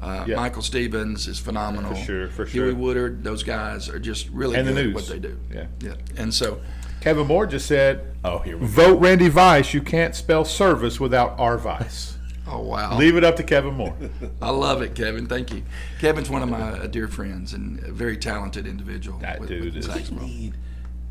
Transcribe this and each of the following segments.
Uh, Yeah. Michael Stevens is phenomenal. For sure, for Huey sure. Woodard, those guys are just really And the good at news. what they do. Yeah. Yeah. And so, Kevin Moore just said, Oh, here we go. vote Randy Vice. You can't spell service without R Vice. oh, wow. Leave it up to Kevin Moore. I love it, Kevin. Thank you. Kevin's one of my uh, dear friends and a very talented individual. That dude is- You need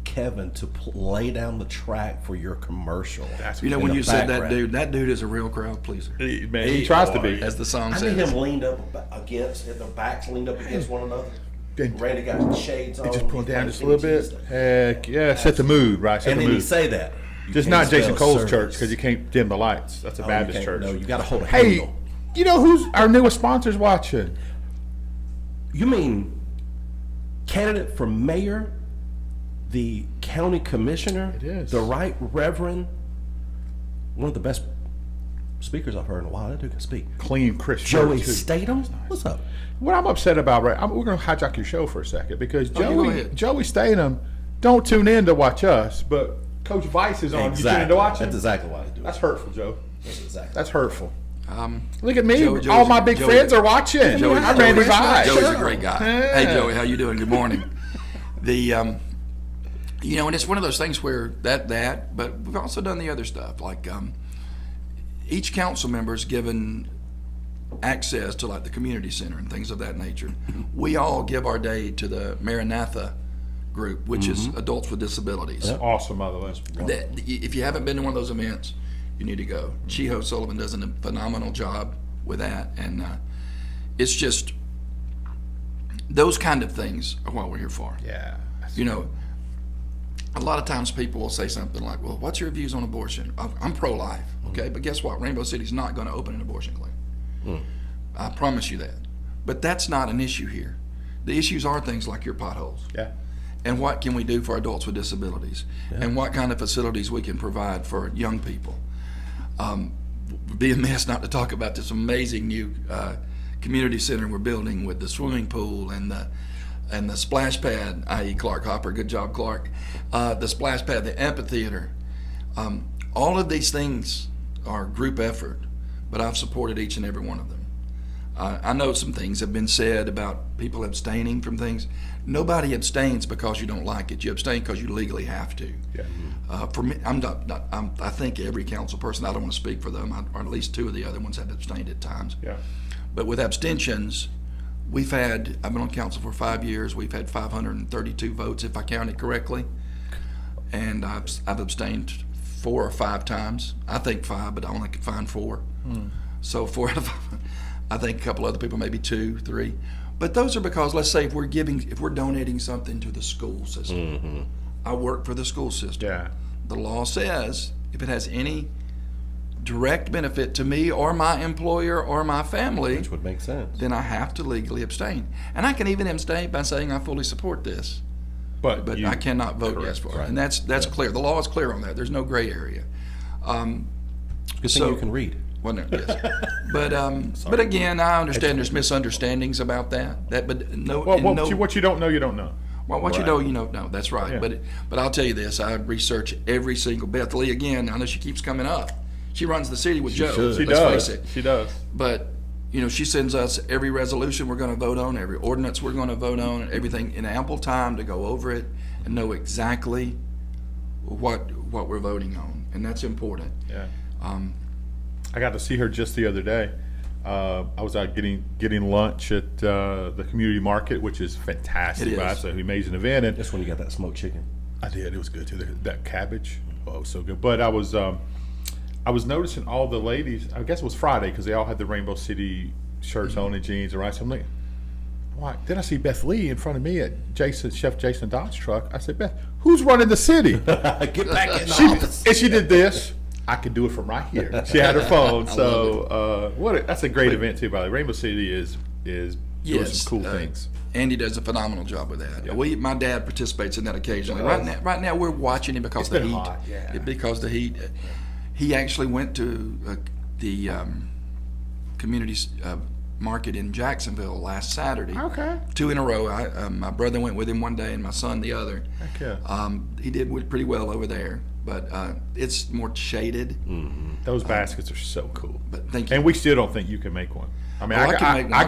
Kevin to pl- lay down the track for your commercial. That's You know, in when the you said that background. dude, that dude is a real crowd pleaser, he, man, he tries to be. as the song I says. need him leaned up ab- against, their backs leaned up against one another. Then- Randy got shades on. Just pull he's down like just a little Jimmy bit. Tuesday. Heck yeah, set the mood, right? Set And the then you mood. say that. You Just can't not Jason spell Cole's service. church because you can't dim the lights. That's a No, you Baptist can't- church. No, you got to hold a hey, handle. you know who's our newest sponsors watching? You mean candidate for mayor, the county commissioner? It is. The right reverend, one of the best speakers I've heard in a while. That dude can speak. Clean Christian. Joey too. Statham? What's up? What I'm upset about, right? I'm, we're going to hijack your show for a second because you go Joey ahead. Joey Statham don't tune in to watch us, but Coach Vice is on. You tune in to watch him. That's exactly why I do it. That's hurtful, Joe. That's exactly. That's hurtful. Um, Look at me. Joe- Joey's All my a- big Joey- friends are watching. Joey's, I'm Randy Joey's- Vice. Joey's a great guy. Hey, Yeah. Joey, how you doing? Good morning. The, um, you know, and it's one of those things where that that, but we've also done the other stuff. Like um, each council member is given access to like the community center and things of that nature. We all give our day to the Maranatha group, which is adults with disabilities. Awesome, by the way. that if you haven't been to one of those events, you need to go. Chiho Sullivan does a phenomenal job with that, and uh, it's just those kind of things are what we're here for. Yeah. You know, a lot of times people will say something like, "Well, what's your views on abortion?" I'm- I'm pro-life, okay, but guess what? Rainbow City's not going to open an abortion clinic. I promise you that. But that's not an issue here. The issues are things like your potholes Yeah. and what can we do for adults with disabilities and what kind of facilities we can provide for young people um, would be amiss not to talk about this amazing new uh, community center we're building with the swimming pool and the and the splash pad i.e clark hopper good job clark uh, the splash pad the amphitheater um, all of these things are group effort but i've supported each and every one of them uh, I know some things have been said about people abstaining from things. Nobody abstains because you don't like it. You abstain because you legally have to. Yeah. Uh, for me, I'm not. not I'm, I think every council person. I don't want to speak for them. I, or at least two of the other ones have abstained at times. Yeah. But with abstentions, we've had. I've been on council for five years. We've had 532 votes, if I counted correctly, and I've, I've abstained four or five times. I think five, but I only could find four. So four out of five. I think a couple other people, maybe two, three. But those are because, let's say, if we're giving, if we're donating something to the school system, I work for the school system. Yeah. The law says if it has any direct benefit to me or my employer or my family, Which would make sense. then I have to legally abstain. And I can even abstain by saying I fully support this, But, but you, I cannot vote yes correct, for it. right. And that's that's clear. The law is clear on that. There's no gray area. Um, Good So- thing you can read. Well, no, yes. but um, but again, I understand there's misunderstandings about that. That but no, Well, in what, no you, what you don't know, you don't know. Well, what you Right. know, you know. No, that's right. But but I'll tell you this: I research every single Beth Lee again. I know she keeps coming up. She runs the city with Joe. should. She let's does. face it. She does. But you know, she sends us every resolution we're going to vote on, every ordinance we're going to vote on, and everything in ample time to go over it and know exactly what what we're voting on, and that's important. Yeah. Um, I got to see her just the other day. Uh, I was out getting getting lunch at uh, the community market, which is fantastic. It is. Right? It's an amazing event. And That's when you got that smoked chicken. I did. It was good too. That- That cabbage, oh, it was so good. But I was, um, I was noticing all the ladies. I guess it was Friday because they all had the Rainbow City shirts on and jeans, and right. So I'm like, why? Then I see Beth Lee in front of me at Jason Chef Jason Dodd's truck. I said, Beth, who's running the city? Get back in the she office. and she did this. I can do it from right here. She had her phone. so uh, what? A, that's a great event too. By the way. Rainbow City is is doing some cool uh, things. Andy does a phenomenal job with that. We, my dad participates in that occasionally. He Right does. now, right now we're watching him because the been heat. hot, yeah. It- Because the heat. He actually went to uh, the um, community s- uh, market in Jacksonville last Saturday. Okay. Two in a row. I, um, my brother went with him one day, and my son the other. Heck yeah. Um, he did w- pretty well over there, but uh, it's more shaded. Mm. Those baskets are so cool. But thank you. And we still don't think you can make one. I mean, Oh, I, I I, can make one. I